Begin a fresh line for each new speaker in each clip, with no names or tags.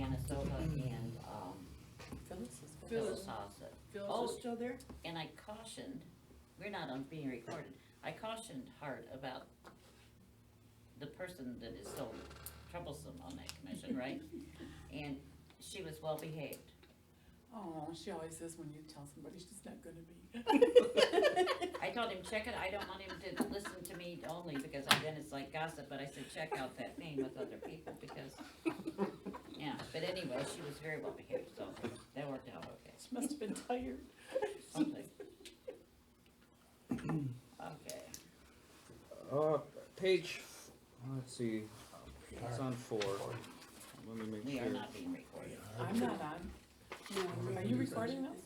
Danisova and, um,
Phyllis is good.
Phyllis
Phyllis,
Hossa.
Phyllis
Oh.
is still there?
And I cautioned, we're not on being recorded, I cautioned Hart about the person that is so troublesome on that commission, right? And she was well behaved.
Oh, she always says when you tell somebody she's not gonna be.
I told him, check it, I don't want him to listen to me only because then it's like gossip, but I said, check out that name with other people because, yeah, but anyway, she was very well behaved, so that worked out okay.
She must have been tired.
Something. Okay,
Uh, page, let's see, it's on four. Let me make
we are
sure.
not being recorded.
I'm not on. No, are you recording us?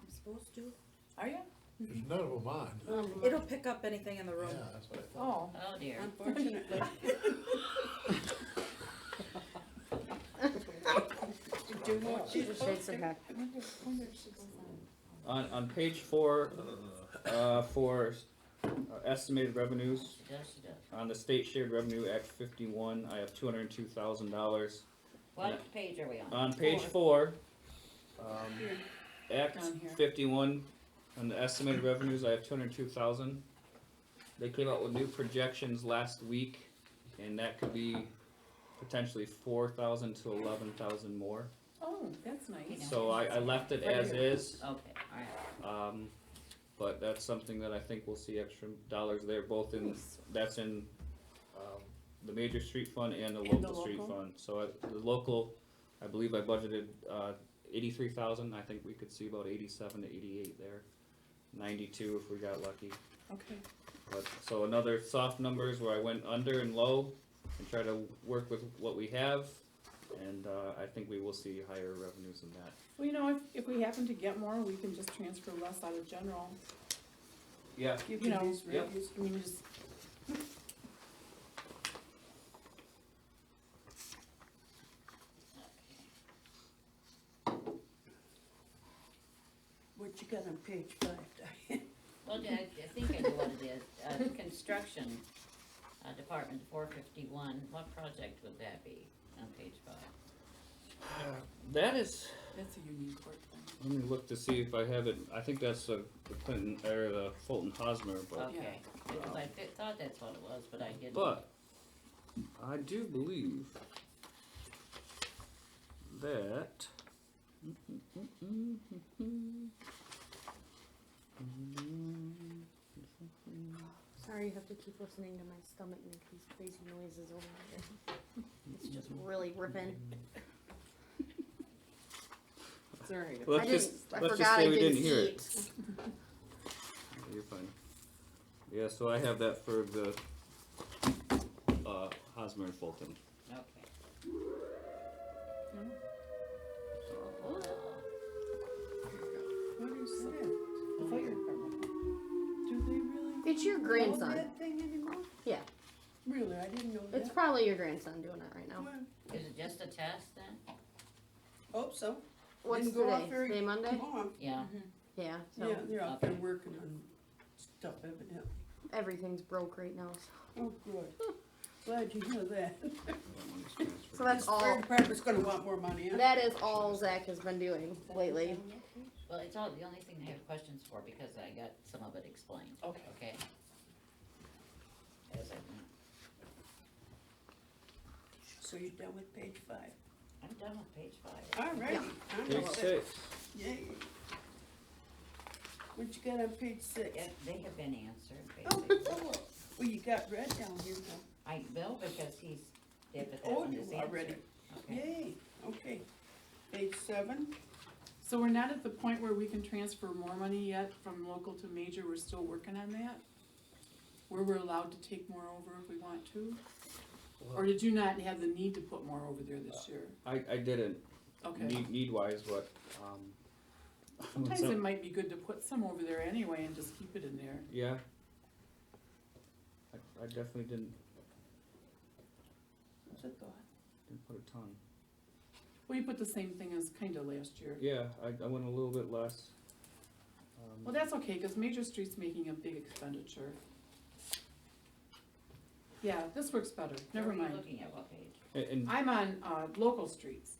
I'm supposed to.
Are you?
There's none of them on.
It'll pick up anything in the
Yeah,
room.
that's what I thought.
Oh,
Oh dear.
Unfortunately. Do what you
Shakes her head.
I wonder, Oh, I wonder if she goes on.
On, on page four, uh, for uh, estimated revenues,
She does, she does.
on the State Shared Revenue Act fifty-one, I have two hundred and two thousand dollars.
What page are we on?
On page four, um, Act
Down here.
fifty-one, on the estimated revenues, I have two hundred and two thousand. They came out with new projections last week, and that could be potentially four thousand to eleven thousand more.
Oh, that's nice.
So I, I left it as is,
Okay, alright.
um, but that's something that I think we'll see extra dollars there, both in, that's in, um, the major street fund and the
And the
local street
local?
fund. So I, the local, I believe I budgeted, uh, eighty-three thousand, I think we could see about eighty-seven to eighty-eight there. Ninety-two if we got lucky,
Okay.
but, so another soft numbers where I went under and low and try to work with what we have. And, uh, I think we will see higher revenues than that.
Well, you know, if, if we happen to get more, we can just transfer less out of general,
Yeah,
you know,
Yep.
I mean, just.
What you got on page five, Diane?
Well, I, I think I know what it is. Uh, construction, uh, department four fifty-one, what project would that be on page five?
that is,
That's a union court thing.
Let me look to see if I have it, I think that's the the Clinton, or the Fulton Hosmer,
Oh,
but,
Okay, because I thi- thought that's what it was, but I didn't.
but, I do believe that.
Sorry, you have to keep listening to my stomach make these crazy noises over here. It's just really ripping.
Sorry.
Let's
I
just-
didn't, I
let's just
forgot I
say we
didn't
didn't hear it.
eat.
You're fine. Yeah, so I have that for the, uh, Hosmer and Fulton.
Okay.
So,
Cool.
What are you saying? The fire department.
Do they
It's your
really?
grandson.
That thing anymore?
Yeah.
Really, I didn't know
It's probably your grandson doing it right now.
Is it just a test then?
Hope Oh, so.
What's
Didn't go off
today?
very-
Today Monday?
Come
Yeah,
Yeah,
on.
so
Yeah, they're out there working on stuff evidently.
everything's broke right now. so-
Oh, good. Glad you know that.
that money's transferred.
So that's
Fire
all,
department's gonna want more money, huh?
that is all Zach has been doing lately.
well, it's all, the only thing I have questions for, because I got some of it explained,
Okay.
okay? As I went.
So you're done with page five.
I'm done with page five.
All right.
Page six,
Yay. What you got on page six?
Yeah, they have been answered,
Oh,
basically.
oh, Well, you got red down here, huh?
I will, because he's, yeah, but that
Oh,
one
you
is
are ready.
answered. Okay.
Yay, okay. Page seven,
So we're not at the point where we can transfer more money yet from local to major, we're still working on that? Where we're allowed to take more over if we want to? Or did you not have the need to put more over there this year?
I, I didn't,
Okay,
need, need wise, but, um.
sometimes
so-
it might be good to put some over there anyway and just keep it in there.
Yeah. I, I definitely didn't,
what's a thought?
didn't put a ton.
Well, you put the same thing as kinda last year.
Yeah, I, I went a little bit less. Um,
Well, that's okay, cause Major Street's making a big expenditure.
yeah, this works better, never
What are you
mind.
Looking at what page?
And- and
I'm on, uh, local streets.